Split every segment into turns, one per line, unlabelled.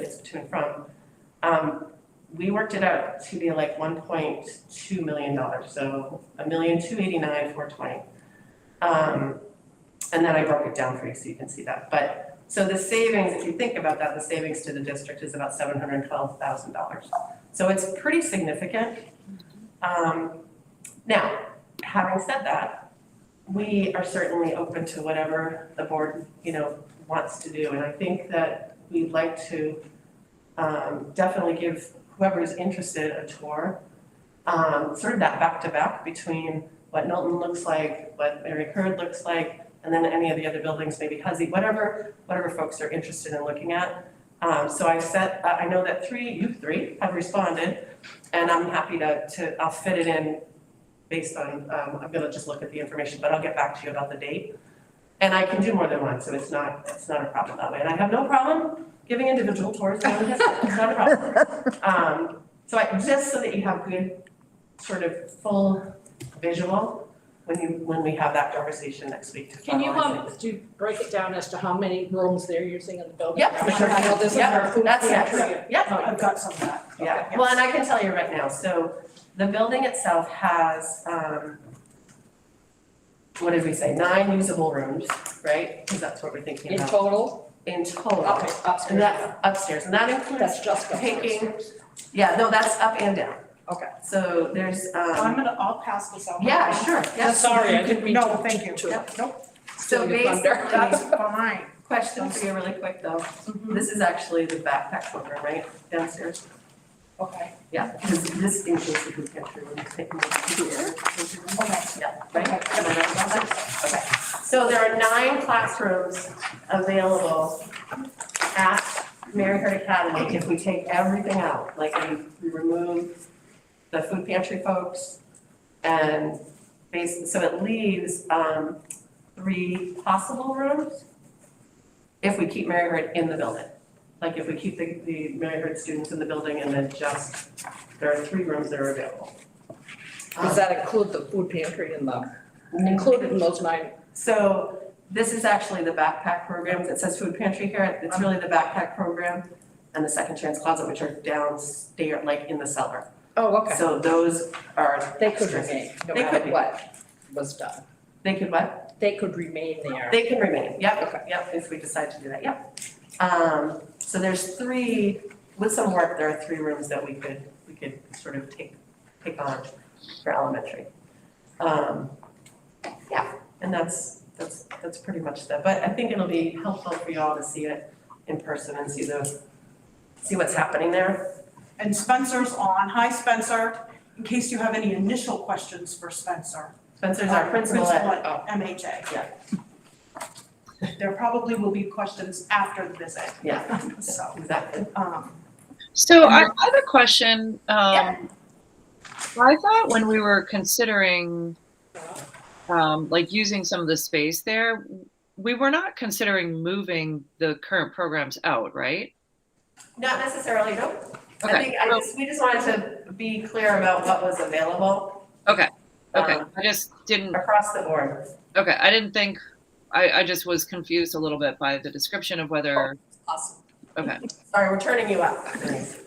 it's to and from. Um, we worked it out to be like one point two million dollars, so a million two eighty-nine, four twenty. Um, and then I broke it down for you so you can see that, but, so the savings, if you think about that, the savings to the district is about seven hundred and twelve thousand dollars. So it's pretty significant. Um, now, having said that, we are certainly open to whatever the board, you know, wants to do, and I think that we'd like to um, definitely give whoever's interested a tour. Um, sort of that back to back between what Knowlton looks like, what Mary Curd looks like, and then any of the other buildings, maybe Huzzy, whatever, whatever folks are interested in looking at. Um, so I set, I I know that three, you three have responded, and I'm happy to, to, I'll fit it in based on, um, I'm gonna just look at the information, but I'll get back to you about the date. And I can do more than one, so it's not, it's not a problem that way, and I have no problem giving individual tours around this, it's not a problem. Um, so I, just so that you have good sort of full visual when you, when we have that conversation next week to
Can you,
finalize
um,
it.
do, break it down as to how many rooms they're using in the building?
Yep,
How much
sure.
of this is
Yep,
for food
that's
pantry?
next. Yep.
Oh, I've got some of that.
Yeah,
Okay.
well, and I can tell you right now, so the building itself has, um, what did we say, nine usable rooms, right? Because that's what we're thinking
In
about.
total,
In total,
okay,
and
upstairs,
that's upstairs, and that includes
that's just upstairs.
taking, yeah, no, that's up and down.
Okay.
So there's,
So I'm
um,
gonna, I'll pass this out.
yeah, sure, yeah.
Sorry, I didn't mean to.
No, thank you.
to-
Nope,
So
Steal your
basically,
thunder.
that's fine.
question for you really quick though. This is actually the backpack program, right, downstairs?
Okay,
Yeah, because this includes the food pantry and the picnic here.
okay.
Yeah, right, am I right about that? Okay, so there are nine classrooms available at Mary Hart Academy if we take everything out, like we, we remove the food pantry folks and basically, so it leaves, um, three possible rooms if we keep Mary Hart in the building. Like if we keep the, the Mary Hart students in the building and then just, there are three rooms that are available.
Does
Um,
that include the food pantry and the,
including
included in those nine?
so this is actually the backpack program that says food pantry here.
Um,
It's really the backpack program and the second chance closet, which are downstairs, like in the cellar.
Oh,
So those are.
They could remain, no
They could
matter
be.
what was done.
They could what?
They could remain there.
They can remain.
Okay.
Yep, yep, if we decide to do that, yep. Um, so there's three, with some work, there are three rooms that we could, we could sort of take, take on for elementary. Um, yeah, and that's, that's, that's pretty much that, but I think it'll be helpful for y'all to see it in person and see the, see what's happening there.
And Spencer's on. Hi, Spencer, in case you have any initial questions for Spencer.
Spencer's our
Um,
principal at,
Principal at MHA.
Yeah.
There probably will be questions after the visit,
yeah,
so,
exactly.
um,
So I, I have a question. Um, I thought when we were considering, um, like using some of the space there, we were not considering moving the current programs out, right?
Not necessarily, no. I
Okay.
think, I just, we just wanted to be clear about what was available.
Okay. Okay.
um,
I just didn't.
Across the board.
Okay. I didn't think. I, I just was confused a little bit by the description of whether.
Awesome.
Okay.
Sorry, we're turning you up. Denise.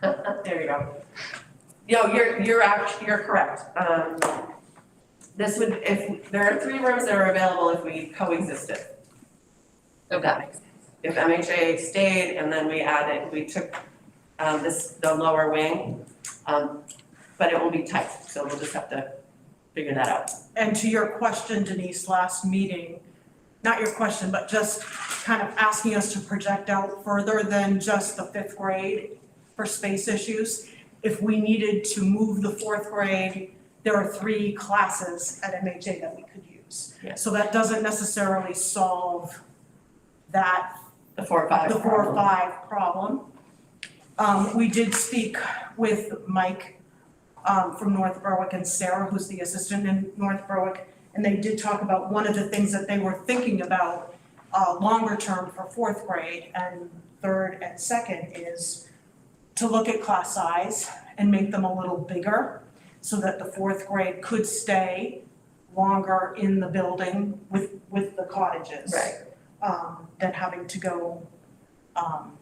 There you go. No, you're, you're act, you're correct. Um, this would, if, there are three rooms that are available if we coexisted. If that makes sense. If MHA stayed and then we added, we took, um, this, the lower wing, um, but it will be tight, so we'll just have to figure that out.
And to your question, Denise, last meeting, not your question, but just kind of asking us to project out further than just the fifth grade for space issues. If we needed to move the fourth grade, there are three classes at MHA that we could use.
Yeah.
So that doesn't necessarily solve that
The four or five.
the four or
problem.
five problem. Um, we did speak with Mike, um, from North Berwick and Sarah, who's the assistant in North Berwick. And they did talk about one of the things that they were thinking about, uh, longer term for fourth grade and third and second is to look at class size and make them a little bigger so that the fourth grade could stay longer in the building with, with the cottages
Right.
um, than having to go um,